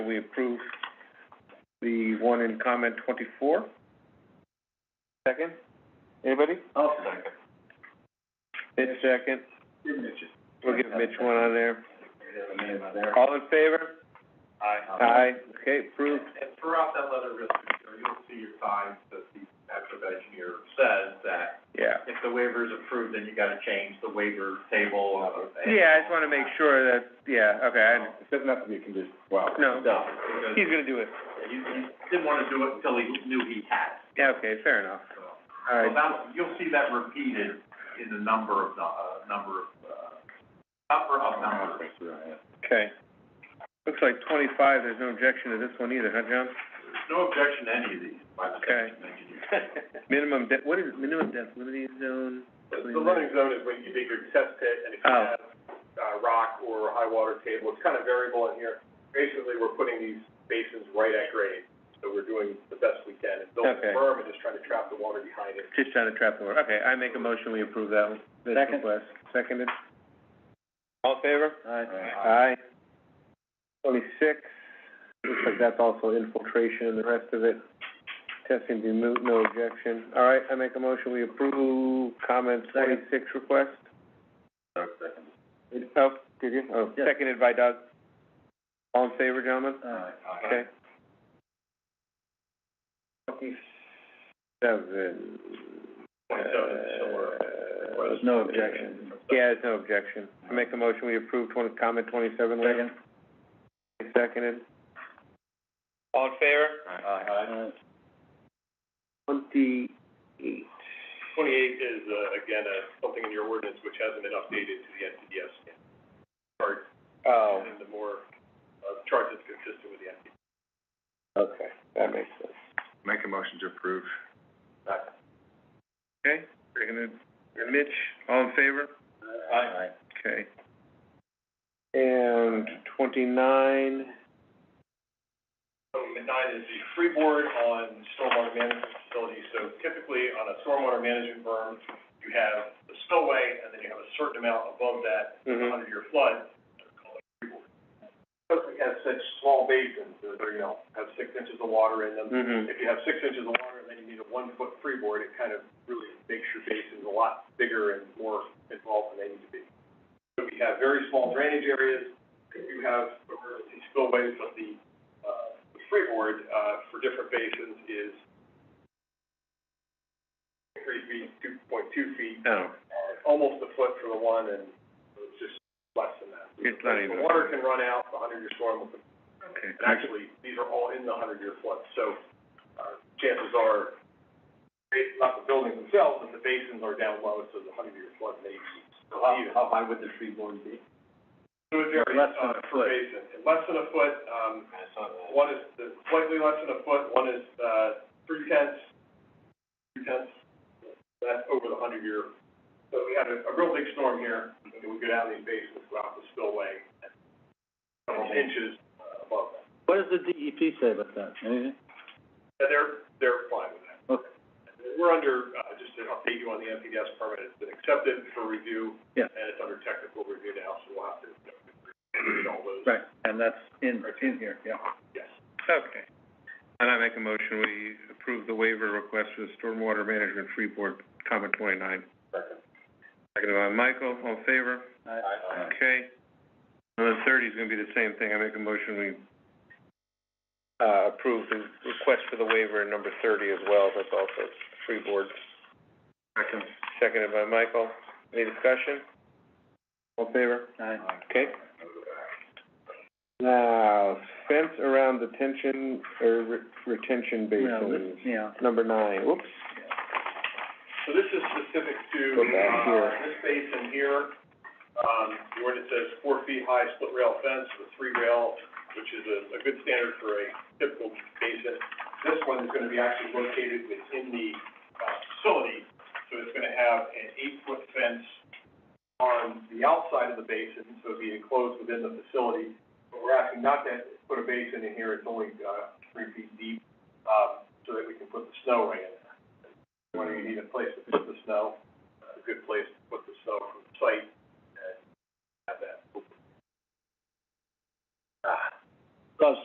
We approve the one in comment twenty-four. Second? Anybody? I'll second. Mitch second. We'll give Mitch one on there. Aye. All in favor? Aye. Okay, approved. And throughout that letter, Mr. Chair, you'll see your signs that the active engineer says that Yeah. if the waiver is approved, then you gotta change the waiver table. Yeah, I just wanna make sure that, yeah, okay, I, under- It doesn't have to be a condition, wow. No. No, he's because gonna do it. he, he didn't wanna do it until he knew he had it, Yeah, okay, fair enough. so. All So right, that, you'll see that repeated in the number of, uh, number of, uh, number of numbers. okay. Looks like twenty-five, there's no objection to this one either, huh, John? No objection to any of these by the Okay. township engineer. Minimum de- what is it? minimum density zone? The Something the like- running zone is when you dig your test pit, and if you Oh. have, uh, rock or high water table, it's kind of variable in here. Basically, we're putting these basins right at grade, so we're doing the best we can. It's built Okay. firm and just trying to trap the water behind it. Just trying to trap the water. Okay, I make a motion, we approve that one. This Second. request. Seconded. All in favor? Aye. Aye. Twenty-six, looks like that's also infiltration and the rest of it. Testing be moot, no objection. All right, I make a motion, we approve comment Second. twenty-six request. Second. Oh, did you? Oh, Yes. seconded by Doug. All in favor, gentlemen? Ah, Okay. Twenty-seven. Twenty-seven is similar. Uh, Yeah, there's no objection. I make a motion, we approve twenty, comment twenty-seven, Lynn. Seconded. All in favor? Uh, Twenty-eight. Twenty-eight is, uh, again, uh, something in your ordinance which hasn't been updated to the NPDS chart, Oh, and the more, uh, chart that's consistent with the NPDS. okay, that makes sense. Make a motion to approve. Okay, we're gonna, Mitch, all in favor? Aye. Okay. And twenty-nine, So nine is the freeboard on stormwater management facilities. So typically on a stormwater management berm, you have the spillway and then you have a certain amount above that mhm, under your flood. they're called freeboard. Because we have such small basins, that are, you know, have six inches of water in them. mhm. If you have six inches of water and then you need a one-foot freeboard, it kind of really makes your basins a lot bigger and more involved than they need to be. So we have very small drainage areas, you have emergency spillways, but the, uh, the freeboard, uh, for different basins is three feet, two point two feet, Oh, uh, almost a foot for the one and it's just less than that. It's not even- The water can run out, the hundred-year storm will okay. and actually, these are all in the hundred-year flood, so, uh, chances are, it's not the buildings themselves, but the basins are down low, so the hundred-year flood may be. So how, how high would the tree board be? It would vary, Less than uh, a per foot. basin, And less than a foot, um, one is the- slightly less than a foot, one is, uh, three tenths, three tenths, that's over the hundred-year. So we had a, a real big storm here, and we go down these basins, go out the spillway, and several inches uh, above that. What does the DEP say about that? Anything? Yeah, they're, they're fine with that. Okay. We're under, uh, just to update you on the MPDS permit, it's been accepted for review. Yeah. And it's under technical review now, so we'll have to read all those. Right, and that's in, in here, yeah. Yes. Okay. And I make a motion, we approve the waiver request for the stormwater management free board, comment twenty-nine. Second. Seconded by Michael, all in favor? Okay. And then thirty is gonna be the same thing, I make a motion, we, uh, approve the request for the waiver in number thirty as well, that's also free board. Second. Seconded by Michael, any discussion? All in favor? Okay. Now, fence around detention, or re- retention basins, yeah. number nine, whoops, So this is specific to, Go back here. uh, this basin here, um, the ordinance says four feet high split rail fence with three rail, which is a, a good standard for a typical basin. This one is gonna be actually located within the, uh, facility, so it's gonna have an eight-foot fence on the outside of the basin, so it'd be enclosed within the facility. But we're asking not to put a basin in here, it's only, uh, three feet deep, um, so that we can put the snow right in there whether you need a place to put the snow, a good place to put the snow from the site, and have that Ah. open